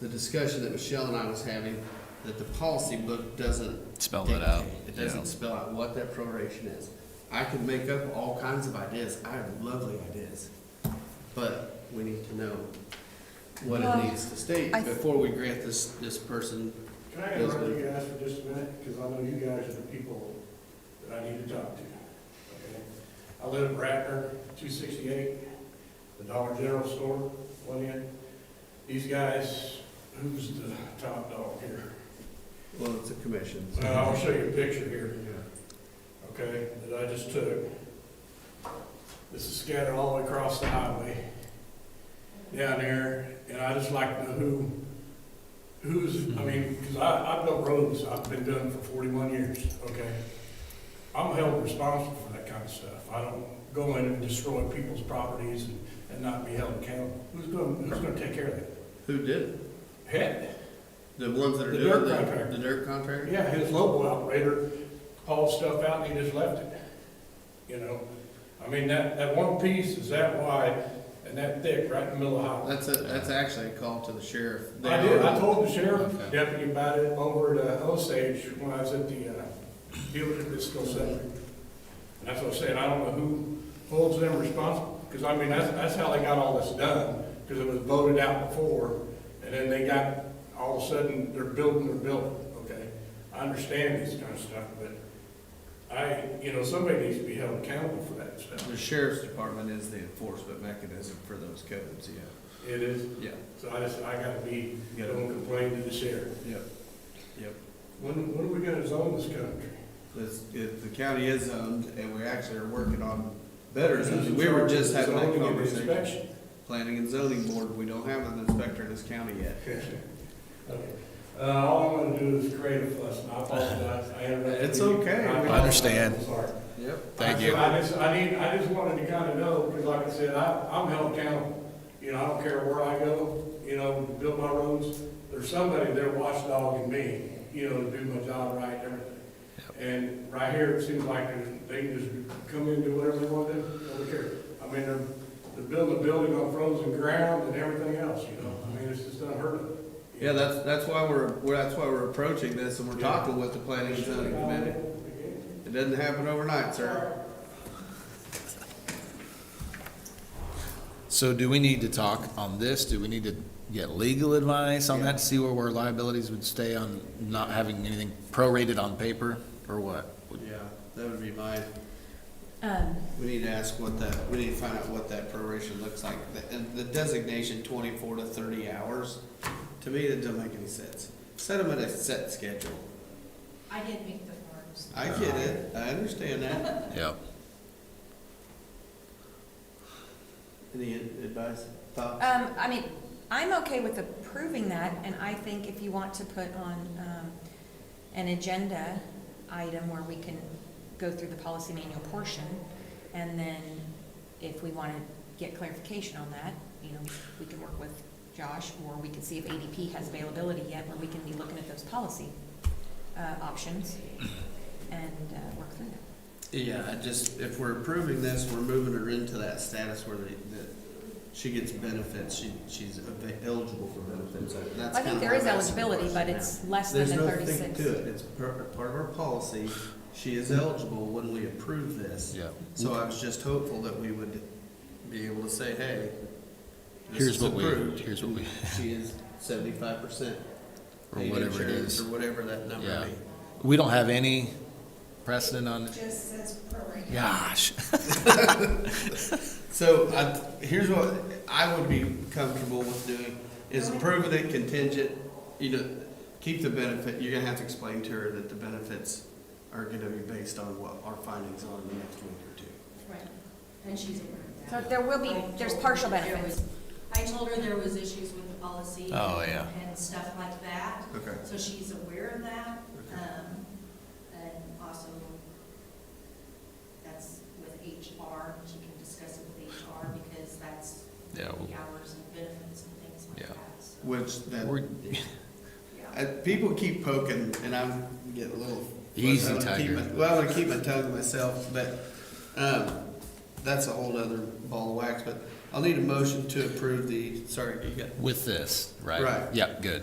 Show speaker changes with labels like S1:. S1: the discussion that Michelle and I was having, that the policy book doesn't
S2: Spell that out.
S1: dictate. It
S2: Yeah.
S1: doesn't spell out what that proration is. I can make up all kinds of ideas. I have lovely ideas. But we need to know what
S3: Well,
S1: it needs to state
S3: I-
S1: before we grant this, this person.
S4: Can I interrupt you guys for just a minute? Because I know you guys are the people that I need to talk to. okay? I live in Ratner, two sixty-eight, the Dollar General store, one end. These guys, who's the top dog here?
S1: Well, it's a commission. so-
S4: Well, I'll Uh, show you a picture here, okay, that I just took. This is scattered all the way across the highway down there, and I just like to know who, who's, I mean, because I, I built roads, I've been doing it for forty-one years, okay? I'm held responsible for that kind of stuff. I don't go in and destroy people's properties and, and not be held accountable. Who's gonna, who's gonna take care of that?
S1: Who did it?
S4: Heck,
S1: The ones that are
S4: The
S1: doing
S4: dirt
S1: the,
S4: contractor.
S1: the dirt contractor?
S4: Yeah, his local operator hauled stuff out and he just left it, you know? I mean, that, that one piece is that wide and that thick, right in the middle of the highway.
S1: That's a, that's actually a call to the sheriff. They
S4: I did, I
S1: are-
S4: told the sheriff
S1: Okay.
S4: deputy about it over at uh, Osage when I was at the, uh, dealer at this school center. And that's what I'm saying, I don't know who holds them responsible, because I mean, that's, that's how they got all this done, because it was voted out before, and then they got, all of a sudden, they're building their building, okay? I understand this kind of stuff, but I, you know, somebody needs to be held accountable for that stuff.
S1: The sheriff's department is the enforcement mechanism for those codes, yeah.
S4: It is,
S1: Yeah.
S4: so I just, I gotta be,
S1: Yeah.
S4: don't complain to the sheriff.
S1: Yep.
S4: When, when are we gonna zone this country?
S1: This, if the county is zoned, and we actually are working on better zoning, we were just having that conversation. Planning and zoning board, we don't have an inspector in this county yet.
S4: Okay. Uh, all I'm gonna do is create a fuss, and I apologize, I interrupted
S1: It's
S4: you.
S1: okay.
S4: I
S2: I understand.
S4: apologize. I'm sorry.
S1: Yep.
S2: Thank
S4: I-
S2: you.
S4: I just, I need, I just wanted to kind of know, because like I said, I, I'm held accountable. You know, I don't care where I go, you know, build my roads, there's somebody there watchdogging me, you know, to do my job right and everything. And right here, it seems like they can just come in and do whatever they want to, do. don't care. I mean, they're, they're building a building on frozen ground and everything else, you know, I mean, it's just unheard of.
S1: Yeah, that's, that's why we're, we're, that's why we're approaching this, and we're talking with the planning and zoning committee. It doesn't happen overnight, sir.
S2: So do we need to talk on this? Do we need to get legal advice on that to see where our liabilities would stay on not having anything prorated on paper or what?
S1: Yeah, that would be my,
S3: Um,
S1: we need to ask what that, we need to find out what that proration looks like. The- And the designation twenty-four to thirty hours, to me, that doesn't make any sense. Set them at a set schedule.
S5: I did make the forms.
S1: I get it, I understand that.
S2: Yep.
S1: Any advice, thoughts?
S3: um, I mean, I'm okay with approving that, and I think if you want to put on, um, an agenda item where we can go through the policy manual portion, and then if we wanna get clarification on that, you know, we can work with Josh, or we can see if ADP has availability yet, where we can be looking at those policy, uh, options, and, uh, work through that.
S1: Yeah, I just, if we're approving this, we're moving her into that status where they, that she gets benefits, she, she's ava- eligible for benefits. That's
S3: I think
S1: kinda
S3: there
S1: how
S3: is
S1: that's
S3: eligibility, but
S1: working
S3: it's
S1: now.
S3: less than the
S1: There's
S3: thirty-six.
S1: nothing to it, it's part, part of our policy, she is eligible when we approve this.
S2: Yep.
S1: So I was just hopeful that we would be able to say, hey, this
S2: Here's
S1: is
S2: what we-
S1: approved.
S2: here's what we-
S1: She is seventy-five percent.
S2: Or whatever it is.
S1: Or whatever that number
S2: Yeah.
S1: be.
S2: We don't have any precedent on,
S5: Just says prorated.
S2: gosh.
S1: So I, here's what I would be comfortable with doing is approving it contingent, you know, keep the benefit, you're gonna have to explain to her that the benefits are gonna be based on what our findings are in the next week or two.
S5: Right, and she's aware of
S3: So
S5: that.
S3: there will be, there's partial
S5: I told her there
S3: benefits.
S5: was- I told her there was issues with the policy.
S2: Oh, yeah.
S5: And stuff like that,
S1: Okay.
S5: so she's aware of that,
S1: Okay.
S5: um, and also that's with HR, she can discuss it with HR because that's
S2: Yeah,
S5: the
S2: well-
S5: hours and benefits and things like
S2: Oh. Yeah.
S5: that, so,
S1: Which that,
S2: We're-
S5: yeah.
S1: I, people keep poking and I'm getting a little.
S2: Easy,
S1: I wanna keep
S2: Tiger.
S1: my- Well, I keep my tongue to myself, but, um, that's a whole other ball of wax, but
S2: I'll need a motion to approve the, sorry, you got
S1: with this, right?
S2: Right.
S1: Yep, good.